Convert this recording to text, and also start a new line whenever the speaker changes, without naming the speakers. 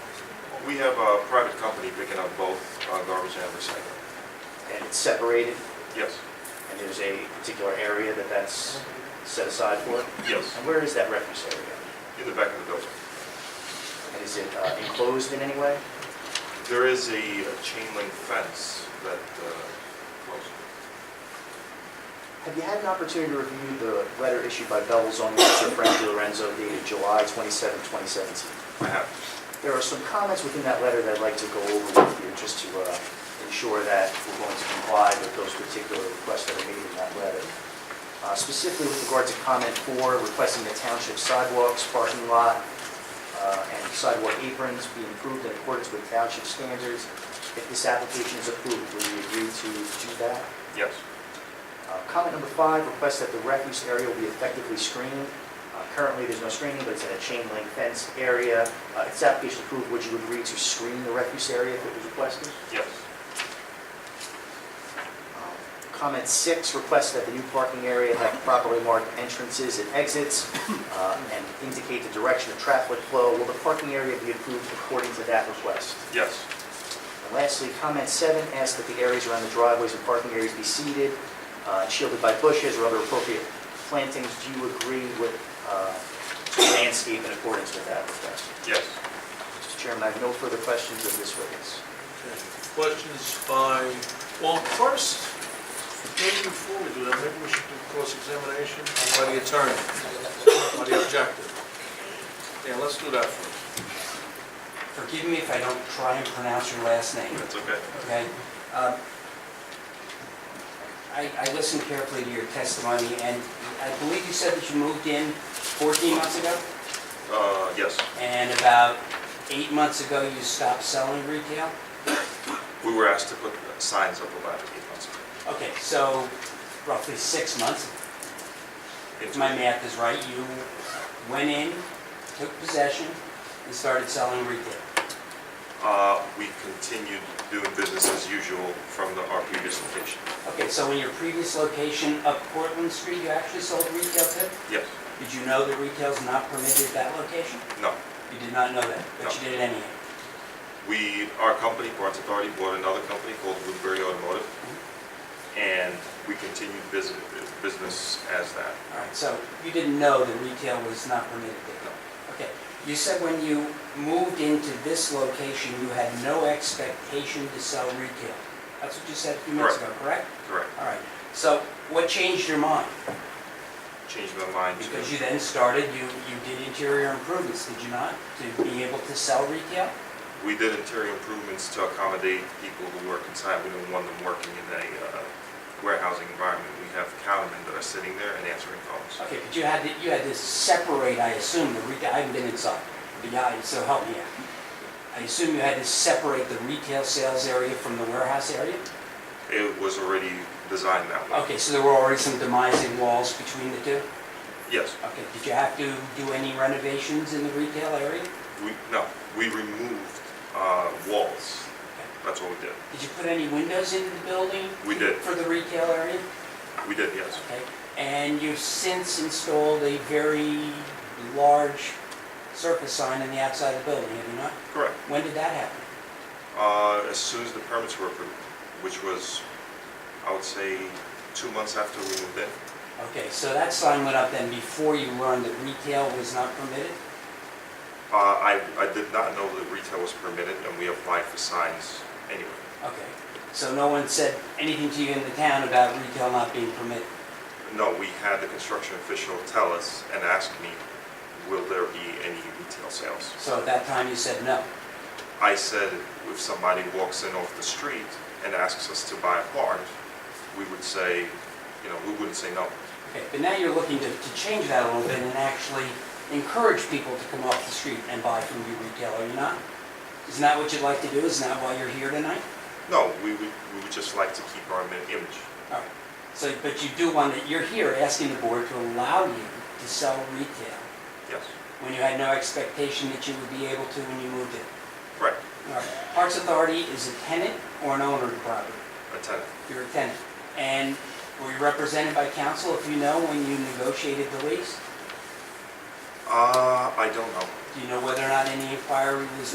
we have a private company picking up both uh, garbage and recycling.
and it's separated,
Yes,
and there's a particular area that that's set aside for it?
yes,
And where is that refuse area?
in the back of the building.
And is it uh, enclosed in any way?
There is a a chain link fence that, uh, close.
Have you had an opportunity to review the letter issued by Bevel's own Mr. Frank Di Lorenzo dated July 27, 2017?
I have,
There are some comments within that letter that I'd like to go over with you, just to uh, ensure that we're going to comply with those particular requests that are made in that letter. Uh, Specifically with regard to comment four, requesting the township sidewalks, parking lot, uh, and sidewalk aprons be improved in accordance with township standards. If this application is approved, will you agree to do that?
yes,
Uh, Comment number five, request that the refuse area will be effectively screened. Uh, Currently, there's no screening, but it's in a chain link fence area. Uh, If this application is approved, would you agree to screen the refuse area if it was requested?
yes,
Uh, Comment six, request that the new parking area have properly marked entrances and exits uh, and indicate the direction of traffic flow. Will the parking area be approved according to that request?
yes,
And Lastly, comment seven asks that the areas around the driveways and parking areas be seeded, uh, shielded by bushes or other appropriate plantings. Do you agree with uh, the landscape in accordance with that request?
yes.
Mr. Chairman, I have no further questions of this witness.
Questions by, well, first, maybe before we do that, maybe we should do cross-examination by the attorney, by the objector. Yeah, let's do that first.
Forgive me if I don't try and pronounce your last name,
That's okay.
okay? Uh, I I listened carefully to your testimony, and I believe you said that you moved in 14 months ago,
Uh, yes,
and about eight months ago, you stopped selling retail?
we were asked to put signs up about eight months ago.
Okay, so roughly six months, if my math is right, you went in, took possession, and started selling retail.
Uh, we continued doing business as usual from the, our previous location.
Okay, so in your previous location up Portland Street, you actually sold retail too?
Yes,
Did you know that retail's not permitted at that location?
no,
You did not know that, but
No.
you did it anyhow.
we, our company, Barnes Authority, bought another company called Woodbury Automotive, and we continued business, business as that.
All right, so you didn't know that retail was not permitted there? Okay. You said when you moved into this location, you had no expectation to sell retail. That's what you said a few minutes ago, correct?
Correct.
All right, so what changed your mind?
Changed my mind to,
Because you then started, you, you did interior improvements, did you not, to be able to sell retail?
we did interior improvements to accommodate people who work inside. We didn't want them working in a uh, warehousing environment. We have cattlemen that are sitting there and answering phones.
Okay, but you had to, you had to separate, I assume, the retail, I haven't been inside, but yeah, so help me out. I assume you had to separate the retail sales area from the warehouse area?
It was already designed that way.
Okay, so there were already some demising walls between the two?
Yes,
Okay, did you have to do any renovations in the retail area?
we, no, we removed uh, walls. That's what we did.
Did you put any windows into the building?
We did.
For the retail area?
We did, yes.
Okay, and you've since installed a very large surface sign on the outside of the building, have you not?
Correct.
When did that happen?
Uh, As soon as the permits were approved, which was, I would say, two months after we moved in.
Okay, so that sign went up then before you learned that retail was not permitted?
Uh, I, I did not know that retail was permitted, and we applied for signs anyway.
Okay, so no one said anything to you in the town about retail not being permitted?
No, we had the construction official tell us and ask me, will there be any retail sales?
So at that time you said no?
I said, if somebody walks in off the street and asks us to buy a part, we would say, you know, we wouldn't say no.
Okay, but now you're looking to, to change that a little bit and actually encourage people to come off the street and buy from your retail, are you not? Isn't that what you'd like to do? Isn't that why you're here tonight?
No, we would, we would just like to keep our im- image.
All right, so, but you do want, to- you're here asking the board to allow you to sell retail
Yes,
when you had no expectation that you would be able to when you moved in?
right,
All right. Parks Authority is a tenant or an owner of the property?
a tenant.
You're a tenant. And were you represented by counsel, if you know, when you negotiated the lease?
Uh, I don't know.
Do you know whether or not any inquiry was